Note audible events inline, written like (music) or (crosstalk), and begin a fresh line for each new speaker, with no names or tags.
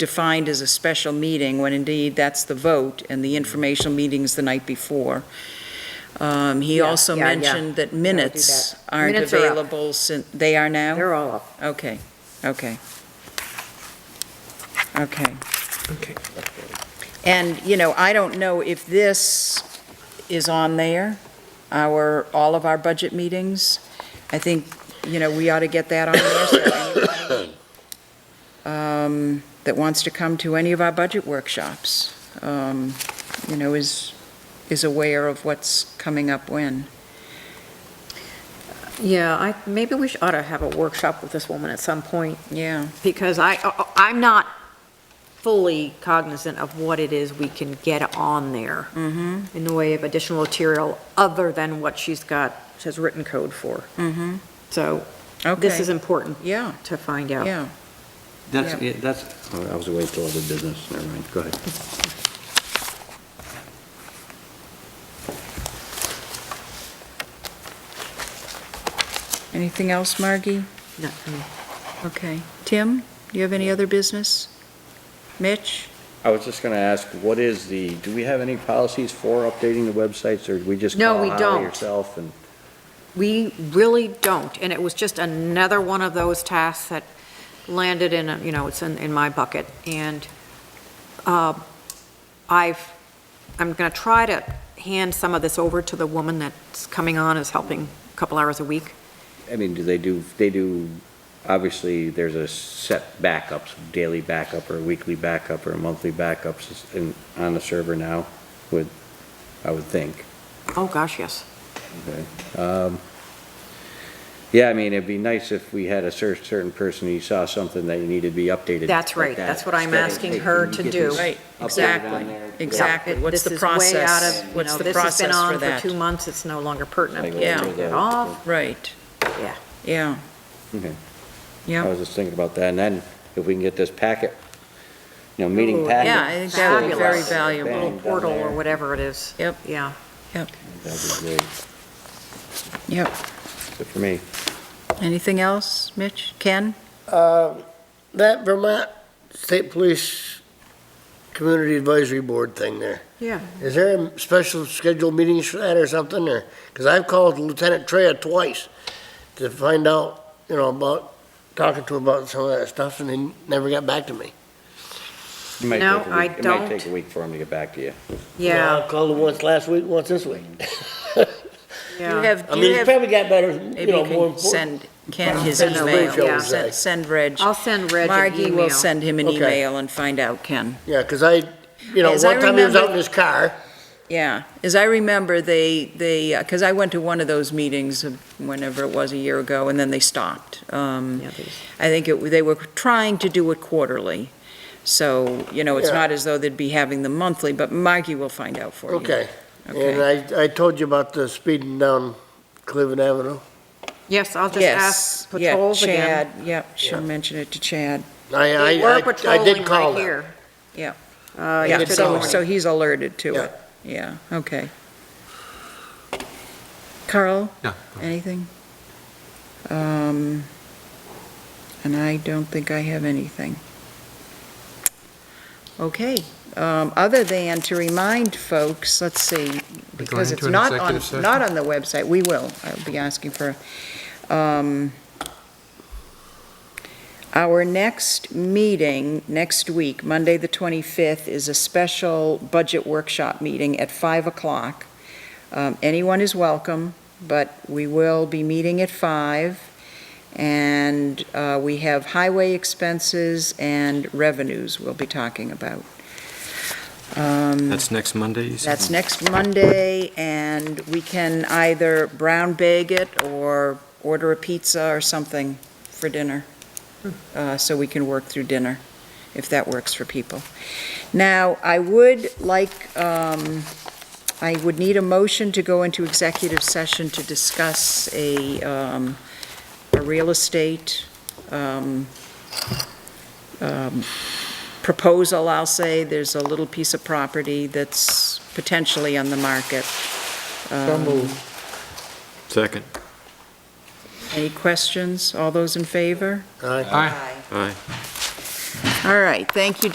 defined as a special meeting, when indeed that's the vote, and
Mm-hmm.
the informational meeting's the night before. Um, He
Yeah,
also
yeah, yeah.
mentioned that minutes aren't
Minutes are up.
available, sin- they are now?
They're all up.
Okay, okay. Okay.
Okay.
And, you know, I don't know if this is on there, our, all of our budget meetings. I think, you know, we ought to get that on there, so anybody um, that wants to come to any of our budget workshops, um, you know, is, is aware of what's coming up when.
Yeah, I, maybe we should ought to have a workshop with this woman at some point,
Yeah,
because I, I- I'm not fully cognizant of what it is we can get on there
mm-hmm,
in the way of additional material other than what she's got, has written code for.
mm-hmm,
So this is
okay,
important
yeah,
to find out.
yeah.
That's,
Yeah.
yeah, that's, oh, I was away till other business, never mind, go ahead.
Anything else, Margie?
No, no.
Okay. Tim, do you have any other business? Mitch?
I was just going to ask, what is the, do we have any policies for updating the websites, or do we just
No,
call
we don't.
Holly yourself? and
We really don't, and it was just another one of those tasks that landed in, a- you know, it's in, in my bucket, and uh, I've, I'm going to try to hand some of this over to the woman that's coming on, is helping a couple hours a week.
I mean, do they do, they do, obviously, there's a set backups, daily backup, or weekly backup, or monthly backups in, on the server now, would, I would think.
Oh, gosh, yes.
Um, Yeah, I mean, it'd be nice if we had a cer- certain person, who saw something that you needed to be updated.
That's
like
right.
that.
That's what I'm
Instead of
asking
taking-
her
you
to
get
do.
this
Right,
updated on
exactly,
there.
exactly.
Yeah,
What's
this
the
is way out
process?
of, you
What's
know,
the process for
This has been on
that?
for two months, it's no longer pertinent.
Like,
Yeah.
over the-
Get off,
Right,
yeah.
yeah,
Okay. I
Uh,
yeah.
was just thinking about that, and then if we can get this packet, you know, meeting
Ooh,
packet.
Yeah, I think that would be very
Fabulous.
valuable.
Bang,
Little
down
portal or
there.
whatever it is.
Yep.
Yeah.
That'd be great,
Yep.
good for me.
Anything else, Mitch? Ken?
Uh, That Vermont State Police Community Advisory Board thing there,
Yeah.
is there a special scheduled meetings for that or something, or? Because I've called Lieutenant Trea twice to find out, you know, about, talking to her about some of that stuff, and he never got back to me.
It might
No,
take a
I
week- It
don't.
might take a week for him to get back to you.
Yeah,
I called him once last week, once
(laughs)
this week.
Do
yeah.
you have,
I
do you
mean, he
have,
probably got better, you
maybe
know,
you
more
can
important.
send Ken his
Send a
email.
Reg,
Yeah,
I'll
send-
say.
Send Reg.
I'll send Reg an
Margie
email.
will send him an
Okay.
email and find out, Ken.
Yeah, because I, you know,
As I
one time he was
remember-
out in his car,
Yeah, as I remember, they, they, because I went to one of those meetings of whenever it was, a year ago, and then they stopped. Um,
Yeah, these-
I think it, they were trying to do it quarterly, so, you know, it's
Yeah.
not as though they'd be having them monthly, but Margie will find out for you.
okay. And
Okay.
I, I told you about the speeding down Cleveland Avenue.
Yes, I'll just
Yes,
ask
yeah,
patrols again.
Chad, yep, she'll
Yeah.
mention it to Chad,
I, I,
They
I-
were
I
patrolling
did call
right
them.
here.
Yeah.
Uh,
yeah,
yesterday
so,
call.
so
morning.
he's alerted to
Yeah.
it, yeah, okay. Carl?
No.
Anything? Um, and I don't think I have anything. Okay, um, other than to remind folks, let's see, because it's
into an
not on,
executive session?
not on the website, we will, I'll be asking for, um, our next meeting, next week, Monday, the 25th, is a special budget workshop meeting at 5 o'clock. Um, Anyone is welcome, but we will be meeting at 5, and uh, we have highway expenses and revenues we'll be talking about. Um,
That's next Monday, you said?
That's next Monday, and we can either brown bag it or order a pizza or something for dinner, uh, so we can work through dinner, if that works for people. Now, I would like, um, I would need a motion to go into executive session to discuss a, um, a real estate um, um, proposal, I'll say. There's a little piece of property that's potentially on the market. Um,
Second.
Any questions? All those in favor?
All right.
Aye. Aye.
All right, thank you,